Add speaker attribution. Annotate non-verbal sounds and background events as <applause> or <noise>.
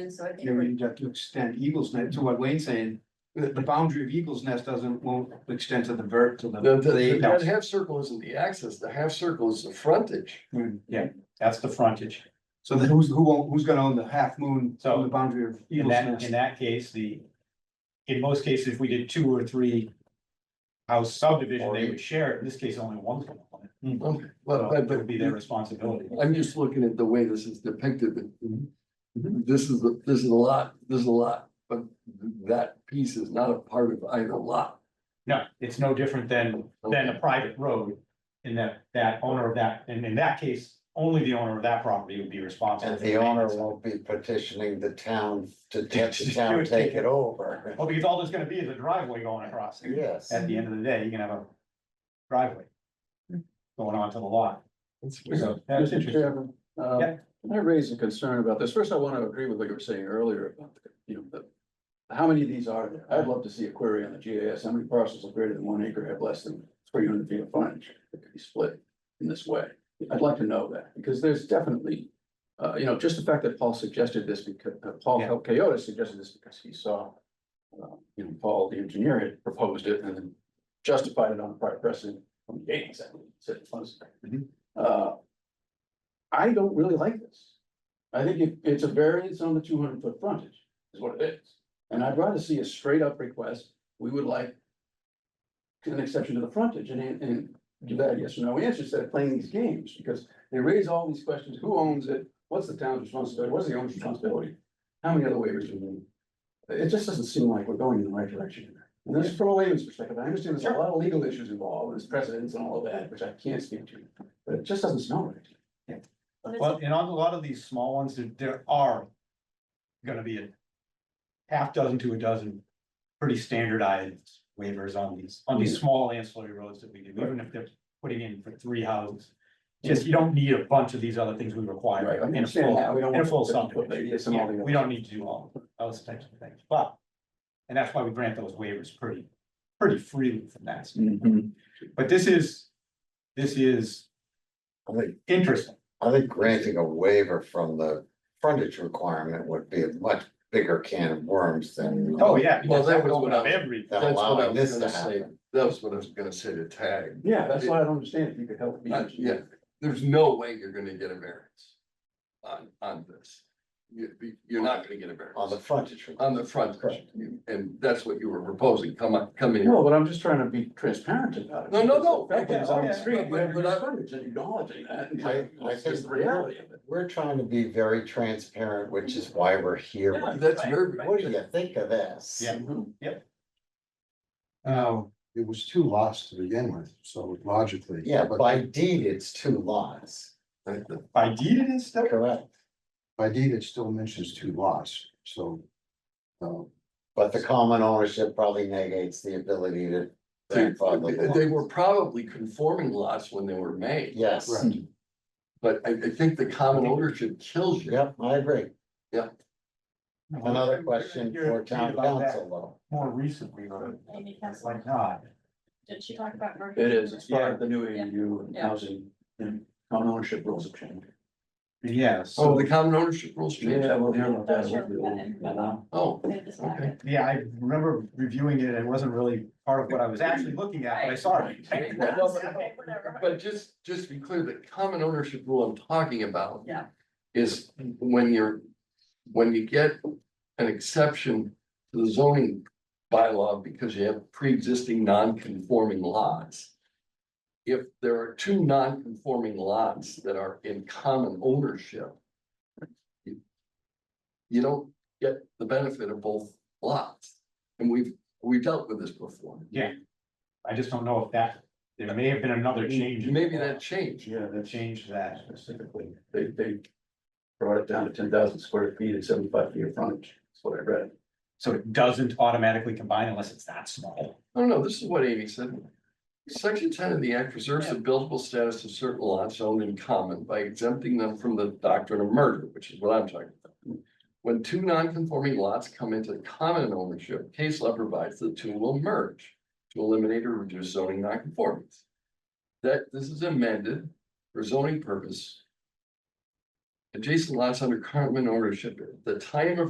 Speaker 1: And so I think
Speaker 2: You know,
Speaker 1: we're-
Speaker 2: you'd have to extend Eagles Nest to what Wayne's saying, the, the boundary of Eagles Nest doesn't, won't extend to the vert, to the.
Speaker 3: The,
Speaker 2: to
Speaker 3: the,
Speaker 2: the
Speaker 3: the- that
Speaker 2: outhouse.
Speaker 3: half circle isn't the axis, the half circle is the frontage.
Speaker 2: Mm.
Speaker 4: Yeah, that's the frontage.
Speaker 2: So then who's, who, own- who's gonna own the half moon
Speaker 4: So,
Speaker 2: on the boundary of
Speaker 4: In
Speaker 2: Eagles
Speaker 4: that, in
Speaker 2: Nest?
Speaker 4: that case, the, in most cases, if we did two or three house subdivision, they would share it. In this case, only one's gonna own it.
Speaker 3: Okay,
Speaker 4: So
Speaker 3: Hmm. But, but,
Speaker 4: It would be their
Speaker 3: but
Speaker 4: responsibility.
Speaker 3: I'm just looking at the way this is depicted.
Speaker 4: Mhm.
Speaker 3: This is, the this is a lot, this is a lot, but that piece is not a part of either lot.
Speaker 4: No, it's no different than, than a private road. In that, that owner of that, and in that case, only the owner of that property would be responsible.
Speaker 5: And
Speaker 4: for
Speaker 5: the owner
Speaker 4: maintenance.
Speaker 5: won't be petitioning the town to have the town take it over.
Speaker 4: Well, because all there's gonna be is a driveway going across. it.
Speaker 5: Yes.
Speaker 4: At the end of the day, you can have a driveway going onto the lot.
Speaker 3: That's weird.
Speaker 4: So that's
Speaker 6: Mr.
Speaker 4: interesting.
Speaker 6: Chairman, uh,
Speaker 4: Yeah.
Speaker 6: I raised a concern about this. First, I want to agree with what you were saying earlier about, you know, the. How many of these are there? I'd love to see a query on the GIS. How many parcels of greater than one acre have less than three hundred feet of frontage that could be split in this way? I'd like to know that because there's definitely, uh, you know, just the fact that Paul suggested this because, uh, Paul
Speaker 4: Yeah.
Speaker 6: Coyota suggested this because he saw. uh, You know, Paul, the engineer had proposed it and then justified it on prior precedent from the eighties, I believe, said it was.
Speaker 4: Mhm.
Speaker 6: Uh, I don't really like this. I think it- it's a variance on the two hundred foot frontage is what it is. And I'd rather see a straight up request. We would like. An exception to the frontage and, and give that yes or no answer instead of playing these games because they raise all these questions. Who owns it? What's the town's responsibility? What's the owner's responsibility? How many other waivers do we need? It just doesn't seem like we're going in the right direction. here. And this is from a layman's perspective. I understand there's a lot of legal issues involved, there's precedents and all of that, which I can't speak to, but it just doesn't smell right.
Speaker 4: Well, and on a lot of these small ones, there, there are gonna be a half dozen to a dozen pretty standardized waivers on these, on these small ancillary roads that we do, even if they're putting in for three houses. Just, you don't need a bunch of these other things we require
Speaker 6: I
Speaker 4: in a
Speaker 6: understand
Speaker 4: full,
Speaker 6: that. We don't
Speaker 4: in a full
Speaker 6: want to put
Speaker 4: subdivision.
Speaker 6: radius and all the
Speaker 4: Yeah,
Speaker 6: other-
Speaker 4: We don't need to do all those types of things, but, and that's why we grant those waivers pretty, pretty freely from that.
Speaker 3: Mm-hmm.
Speaker 4: standpoint. But this is, this is
Speaker 5: I think,
Speaker 4: interesting.
Speaker 5: I think granting a waiver from the frontage requirement would be a much bigger can of worms than.
Speaker 4: Oh, yeah.
Speaker 3: Well, that was
Speaker 4: Open
Speaker 3: what I
Speaker 4: up
Speaker 3: was-
Speaker 4: every.
Speaker 5: Than
Speaker 3: That's what I was
Speaker 5: allowing this to
Speaker 3: gonna say.
Speaker 5: happen.
Speaker 3: That was what I was gonna say to tag.
Speaker 6: Yeah, that's why I don't understand if you could help me.
Speaker 3: Uh, yeah, there's no way you're gonna get a variance on, on this. You, you're not gonna get a variance.
Speaker 5: On the frontage.
Speaker 3: on the front, and that's what you were proposing, come on, come in.
Speaker 6: No, but I'm just trying to be transparent about it.
Speaker 3: No, no, no.
Speaker 6: Because the fact is, on the
Speaker 4: Yeah,
Speaker 6: street, you
Speaker 3: but-
Speaker 6: have
Speaker 3: but I-
Speaker 6: your frontage and acknowledging that. and
Speaker 5: I- I
Speaker 6: That's just
Speaker 5: think-
Speaker 6: the reality of it.
Speaker 5: We're trying to be very transparent, which is why we're here.
Speaker 4: Yeah.
Speaker 3: That's very,
Speaker 5: What do you think of this?
Speaker 4: Yeah.
Speaker 6: Mhm.
Speaker 4: Oh,
Speaker 7: it was two lots to begin with, so logically.
Speaker 5: Yeah,
Speaker 7: but
Speaker 5: by deed, it's two lots,
Speaker 4: by deed it is still,
Speaker 5: correct?
Speaker 7: By deed, it still mentions two lots, so. uh,
Speaker 5: But the common ownership probably negates the ability to.
Speaker 3: they,
Speaker 5: grandfather the
Speaker 3: they
Speaker 5: lots.
Speaker 3: were probably conforming lots when they were made,
Speaker 5: Yes,
Speaker 7: Right.
Speaker 3: but I, I think the common ownership kills you.
Speaker 5: yep, I agree. Another question
Speaker 4: You're-
Speaker 5: for town
Speaker 4: about that.
Speaker 5: council though.
Speaker 4: more recently, or
Speaker 1: Amy
Speaker 4: it's
Speaker 1: Castle.
Speaker 4: like not.
Speaker 1: Did she talk about? her?
Speaker 6: It is, it's part of the new
Speaker 1: Yeah.
Speaker 6: AU and
Speaker 1: Yeah.
Speaker 6: housing and common ownership rules have changed.
Speaker 4: Yeah,
Speaker 3: Oh, the common ownership rules changed,
Speaker 6: Yeah, we'll hear about that.
Speaker 1: Those are within-
Speaker 6: Yeah.
Speaker 3: oh,
Speaker 1: They just back <laughs>
Speaker 3: okay.
Speaker 1: it.
Speaker 4: yeah, I remember reviewing it, and it wasn't really part of what I was actually looking at, but I saw it.
Speaker 1: Right.
Speaker 3: Well, but-
Speaker 1: Okay, whatever.
Speaker 3: But just, just to be clear, the common ownership rule I'm talking about.
Speaker 1: Yeah.
Speaker 3: Is when you're, when you get an exception to the zoning bylaw because you have pre-existing non-conforming lots. If there are two non-conforming lots that are in common ownership. you- You don't get the benefit of both lots, and we've, we've dealt with this before.
Speaker 4: I just don't know if that, there may have been another change. in the
Speaker 3: Maybe
Speaker 4: law
Speaker 3: that changed.
Speaker 6: Yeah,
Speaker 4: That
Speaker 6: that's
Speaker 4: changed that.
Speaker 6: specifically, they, they brought it down to ten thousand square feet and seventy-five feet of frontage, that's what I read.
Speaker 4: So it doesn't automatically combine unless it's that small.
Speaker 3: No, no, this is what Amy said. Section ten of the act preserves the buildable status of certain lots owned in common by exempting them from the doctrine of merger, which is what I'm talking about. When two non-conforming lots come into common ownership, case law provides the two will merge to eliminate or reduce zoning nonconformities. That this is amended for zoning purpose. Adjacent lots under common ownership, at the time of